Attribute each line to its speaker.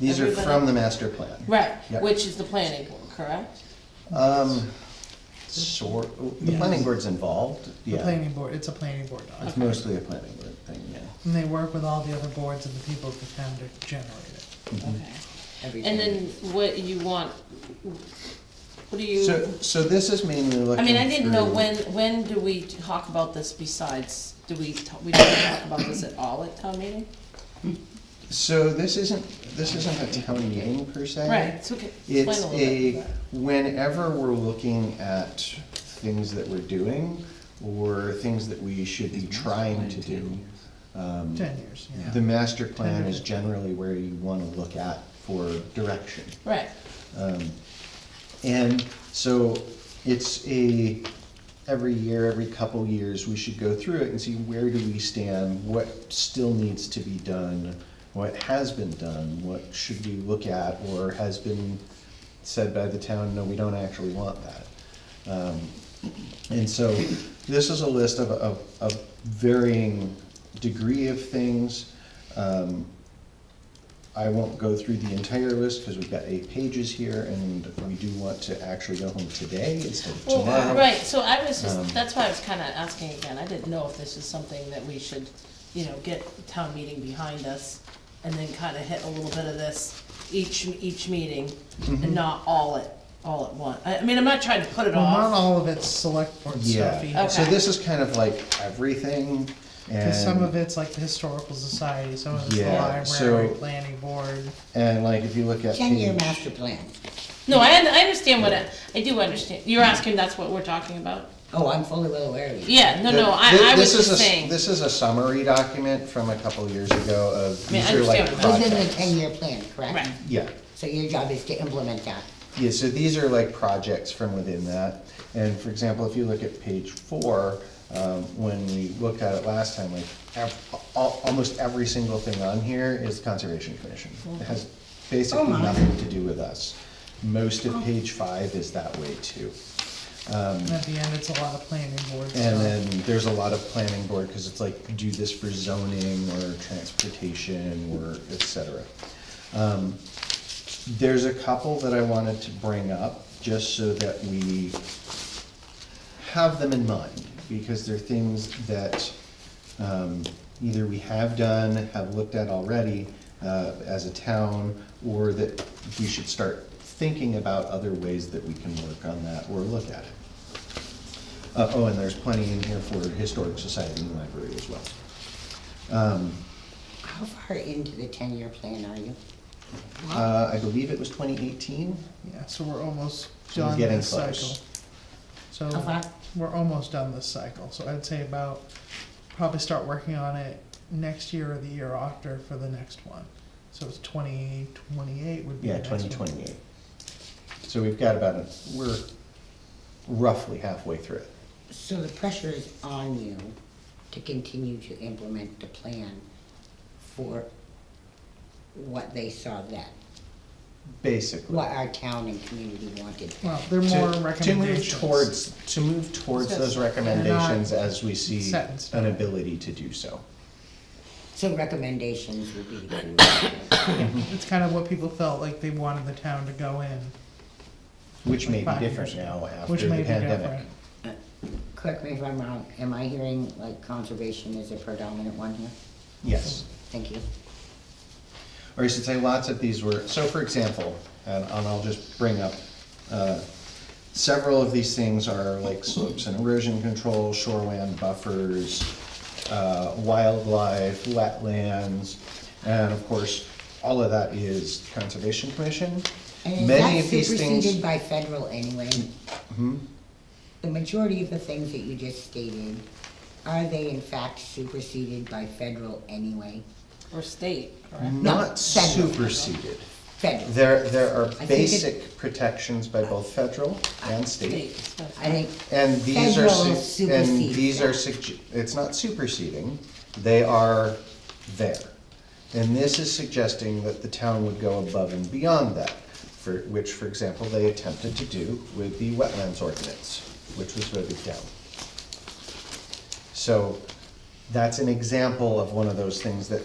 Speaker 1: These are
Speaker 2: Everybody-
Speaker 1: from the master plan.
Speaker 2: Right,
Speaker 1: Yep.
Speaker 2: which is the planning board, correct?
Speaker 1: Um, sort, the planning board's involved,
Speaker 3: The
Speaker 1: yeah.
Speaker 3: planning board, it's a planning board doc.
Speaker 1: It's mostly a planning board thing, yeah.
Speaker 3: And they work with all the other boards and the people of the town to generate it.
Speaker 1: Mm-hmm.
Speaker 2: Okay. And then what you want, what do
Speaker 1: So,
Speaker 2: you,
Speaker 1: so this is mainly looking
Speaker 2: I mean, I didn't know
Speaker 1: through-
Speaker 2: when, when do we talk about this besides, do we, ta- we don't talk about this at all at town meeting?
Speaker 1: So this isn't, this isn't a town meeting per se.
Speaker 2: Right, so okay, explain
Speaker 1: Uh, It's
Speaker 2: a little bit.
Speaker 1: a, whenever we're looking at things that we're doing or things that we should be trying to do, um,
Speaker 3: Ten years, yeah.
Speaker 1: the master plan is generally where you wanna look at for direction.
Speaker 2: Right,
Speaker 1: Um, And so it's a, every year, every couple years, we should go through it and see where do we stand? What still needs to be done? What has been done? What should we look at or has been said by the town, no, we don't actually want that? Um, And so this is a list of, of, of varying degree of things. Um, I won't go through the entire list because we've got eight pages here and we do want to actually go home today instead of
Speaker 2: well,
Speaker 1: tomorrow.
Speaker 2: right, so I was
Speaker 1: Um,
Speaker 2: just, that's why I was kinda asking again, I didn't know if this is something that we should, you know, get town meeting behind us and then kinda hit a little bit of this each, each meeting
Speaker 1: Mm-hmm.
Speaker 2: and not all at, all at once. I, I mean, I'm not trying to put it
Speaker 3: Well, not
Speaker 2: off,
Speaker 3: all of it's select board stuff
Speaker 1: Yeah,
Speaker 3: either.
Speaker 1: so
Speaker 2: Okay.
Speaker 1: this is kind of like everything and,
Speaker 3: Cause some of it's like the historical society, some of it's the
Speaker 1: Yeah,
Speaker 3: library,
Speaker 1: so-
Speaker 3: planning board.
Speaker 1: and like if you look at
Speaker 4: Ten-year
Speaker 1: page-
Speaker 4: master plan.
Speaker 2: no, I, I understand what, I I do understand, you're asking that's what we're talking about?
Speaker 4: Oh, I'm fully well aware of it.
Speaker 2: Yeah, no,
Speaker 1: Th-
Speaker 2: no, I,
Speaker 1: thi-
Speaker 2: I
Speaker 1: this
Speaker 2: was
Speaker 1: is
Speaker 2: just
Speaker 1: a s-
Speaker 2: saying,
Speaker 1: This is a summary document from a couple years ago of,
Speaker 2: I mean,
Speaker 1: these
Speaker 2: I
Speaker 1: are like
Speaker 2: understand what
Speaker 4: Within the
Speaker 1: projects.
Speaker 4: ten-year plan, correct?
Speaker 2: right,
Speaker 1: Yeah,
Speaker 4: So your job is to implement that.
Speaker 1: yeah, so these are like projects from within that. And for example, if you look at page four, um, when we looked at it last time, like, ev- al- almost every single thing on here is Conservation Commission. It has basically
Speaker 4: my.
Speaker 1: nothing to do with us. Most of page five is that way too.
Speaker 3: And at the end, it's a lot of planning board stuff.
Speaker 1: And then there's a lot of planning board, because it's like, do this for zoning or transportation or et cetera. Um, There's a couple that I wanted to bring up, just so that we have them in mind, because they're things that um, either we have done, have looked at already uh, as a town, or that we should start thinking about other ways that we can work on that or look at it. Uh, oh, and there's plenty in here for Historic Society and Library as well. Um,
Speaker 4: How far into the ten-year plan are you?
Speaker 1: uh, I believe it was twenty eighteen,
Speaker 3: Yeah, so we're almost
Speaker 1: So we're
Speaker 3: done
Speaker 1: getting
Speaker 3: this cycle.
Speaker 1: close.
Speaker 4: How
Speaker 3: So,
Speaker 4: far?
Speaker 3: we're almost done this cycle, so I'd say about, probably start working on it next year or the year after for the next one. So it's twenty twenty-eight would be the
Speaker 1: yeah,
Speaker 3: next one.
Speaker 1: twenty twenty-eight. So we've got about, a we're roughly halfway through it.
Speaker 4: So the pressure is on you to continue to implement the plan for what they saw then,
Speaker 1: basically.
Speaker 4: what our town and community wanted.
Speaker 3: Well, they're
Speaker 1: To-
Speaker 3: more
Speaker 1: To move
Speaker 3: recommendations.
Speaker 1: towards, to move towards
Speaker 2: Yes.
Speaker 1: those recommendations as we see
Speaker 3: set in stone.
Speaker 1: an ability to do so.
Speaker 4: So recommendations would be the key.
Speaker 3: It's kind of what people felt like they wanted the town to go in,
Speaker 1: Which may
Speaker 3: Five
Speaker 1: be different
Speaker 3: years.
Speaker 1: now after
Speaker 3: which
Speaker 1: the
Speaker 3: may be
Speaker 1: pandemic.
Speaker 3: different.
Speaker 4: Correct me if I'm wrong, am I hearing like conservation is a predominant one here?
Speaker 1: Yes.
Speaker 4: Thank you.
Speaker 1: or I should say lots of these were, so for example, and, and I'll just bring up, uh, several of these things are like slopes and erosion control, shoreland buffers, uh, wildlife, wetlands, and of course, all of that is Conservation Commission.
Speaker 4: And
Speaker 1: Many
Speaker 4: that's
Speaker 1: of these
Speaker 4: superseded
Speaker 1: things, Mm-hmm.
Speaker 4: by federal anyway. The majority of the things that you just stated, are they in fact superseded by federal anyway?
Speaker 2: or state, correct?
Speaker 1: not
Speaker 4: federal.
Speaker 1: superseded.
Speaker 4: Federal.
Speaker 1: There, there are
Speaker 4: think it-
Speaker 1: basic protections by both federal and
Speaker 2: State,
Speaker 1: state.
Speaker 2: especially.
Speaker 4: I think,
Speaker 1: And these are,
Speaker 4: Federal
Speaker 1: su- and
Speaker 4: supersedes
Speaker 1: these are,
Speaker 4: that.
Speaker 1: sugge- it's not superseding, they are there. And this is suggesting that the town would go above and beyond that, for, which, for example, they attempted to do with the wetlands ordinance, which was voted down. So, that's an example of one of those things that